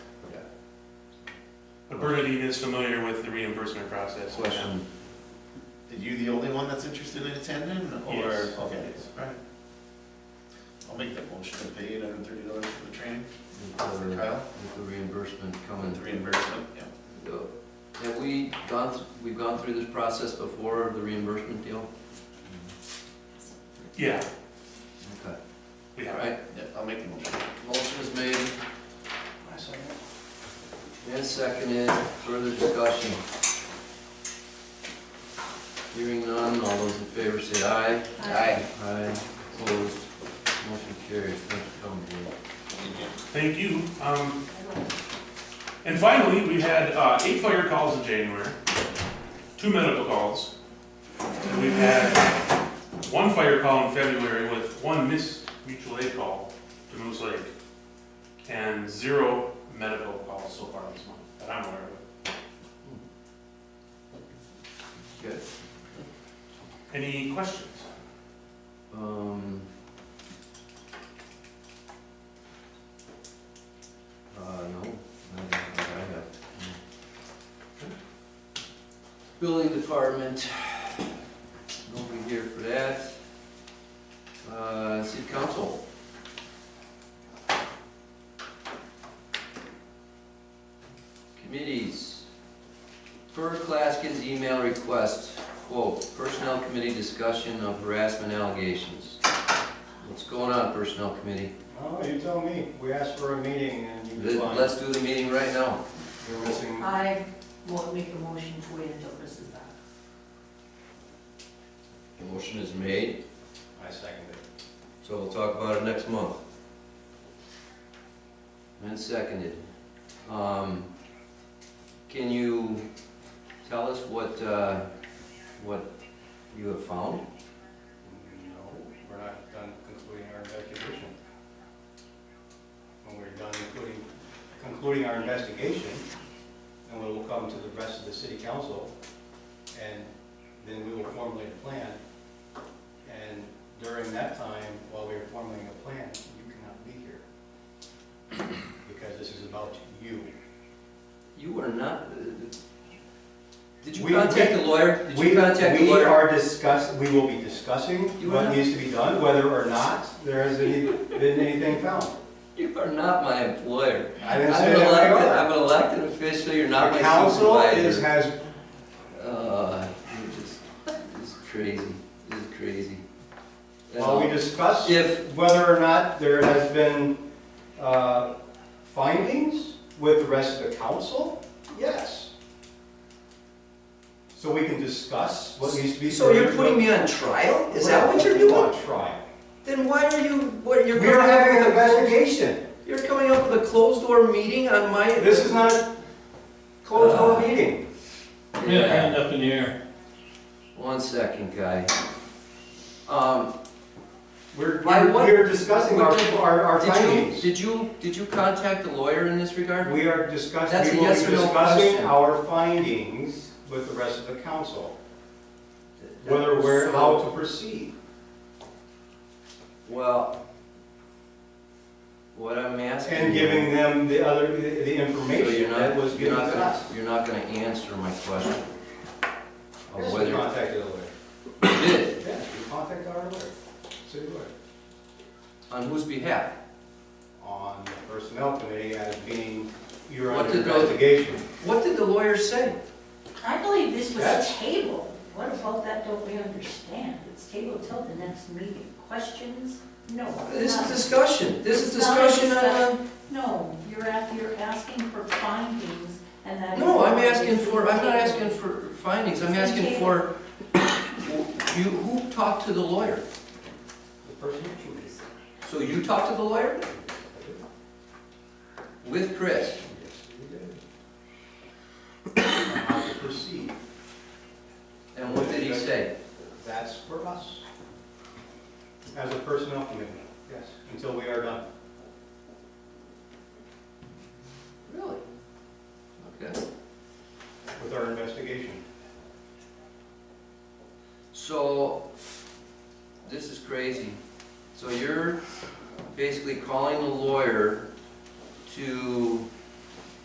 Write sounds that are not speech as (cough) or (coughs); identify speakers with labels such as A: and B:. A: Bernadine is familiar with the reimbursement process.
B: Question. Are you the only one that's interested in attending, or?
A: Yes.
B: Okay,
A: Yes.
B: all right. I'll make that motion to pay eight hundred and thirty dollars for the training,
C: With
B: for
C: the-
B: Kyle,
C: with the reimbursement
B: with
C: coming.
B: the reimbursement, yeah.
C: Uh, Have we gone, th- we've gone through this process before, the reimbursement deal?
A: Yeah,
C: Okay.
A: we
C: All
A: have.
C: right,
B: Yeah, I'll make the motion.
C: motion is made and seconded, further discussion. Hearing none, all those in favor say aye.
D: Aye.
C: Aye, opposed, motion carries, thanks for coming Dave.
A: Thank you. Um, and finally, we had, uh, eight fire calls in January, two medical calls. And we've had one fire call in February with one missed mutual aid call to Moose Lake. And zero medical calls so far this month that I'm aware of.
C: Good.
A: Any questions?
C: Um. Uh, no, I don't think I have. Building department, nobody here for that. Uh, city council. Committees. Per Claskin's email request, quote, personnel committee discussion of harassment allegations. What's going on, personnel committee?
E: Oh, you tell me. We asked for a meeting and you
C: Let-
E: declined.
C: Let's do the meeting right now.
E: You're missing,
D: I won't make a motion to wait until this is back.
C: The motion is made,
E: I second it.
C: so we'll talk about it next month. And seconded. Um, Can you tell us what, uh, what you have found?
E: No, we're not done concluding our investigation. When we're done concluding, concluding our investigation, then we will come to the rest of the city council and then we will formulate a plan. And during that time, while we are formulating a plan, you cannot be here. Because this is about you.
C: You are not, uh, did you
E: We-
C: contact the lawyer? Did
E: We,
C: you contact the
E: we
C: lawyer?
E: are discuss, we will be discussing
C: You are
E: what
C: not-
E: needs to be done, whether or not there has any, been anything found.
C: You are not my employer.
E: I
C: I'm
E: didn't say
C: an
E: that
C: elected,
E: we are.
C: I'm an elected official, you're not my
E: The
C: supervisor.
E: council is, has,
C: Uh, you're just, this is crazy, this is crazy. That's
E: while we
C: all.
E: discuss
C: If,
E: whether or not there has been, uh, findings with the rest of the council, yes. So we can discuss what needs to be.
C: so you're putting me on trial? Is that what you're doing?
E: Try.
C: Then why are you, what, you're
E: We
C: coming
E: are having
C: up
E: an
C: with a,
E: investigation.
C: you're coming up with a closed door meeting on my?
E: This is not a closed
C: Uh.
E: door meeting.
C: Yeah.
F: up in the air.
C: One second, guy. Um,
E: We're,
C: Why,
E: we're
C: what-
E: we're discussing our,
C: what did-
E: our our
C: did you,
E: findings.
C: did you, did you contact the lawyer in this regard?
E: We are
C: That's
E: discussing,
C: a
E: we will be
C: yes or no
E: discussing
C: question.
E: our findings with the rest of the council, whether we're, how to proceed.
C: Well, what I'm asking.
E: And
C: you-
E: giving them the other, the- the
C: So you're
E: information
C: not-
E: that was
C: you're
E: given to
C: not gonna-
E: us.
C: You're not gonna answer my question. Of
E: Yes, we
C: Oh, whether,
E: contacted a lawyer.
C: you did,
E: Yes, we contacted our lawyer, city lawyer,
C: on whose behalf?
E: on the personnel committee as being, you're
C: What
E: under
C: did those-
E: investigation.
C: What did the lawyer say?
D: I believe this was
E: That's-
D: tabled. What about that don't we understand? It's tabled till the next meeting. Questions? No.
C: This
D: none.
C: is discussion, this is
D: It's not
C: discussion on,
D: No, you're at, you're asking for findings and that.
C: a-
D: is
C: no, I'm
D: why this
C: asking
D: is
C: for, I'm not
D: tabled.
C: asking for findings, I'm asking for, (coughs) you, who talked to the lawyer?
E: The personnel committee.
C: So you talked to the lawyer? With Chris?
E: Yes, we did. (coughs) On How to proceed,
C: And what did he say?
E: that's for us. As a personnel committee, yes, until we are done.
C: Really? Okay.
E: with our investigation.
C: So, this is crazy. So you're basically calling the lawyer to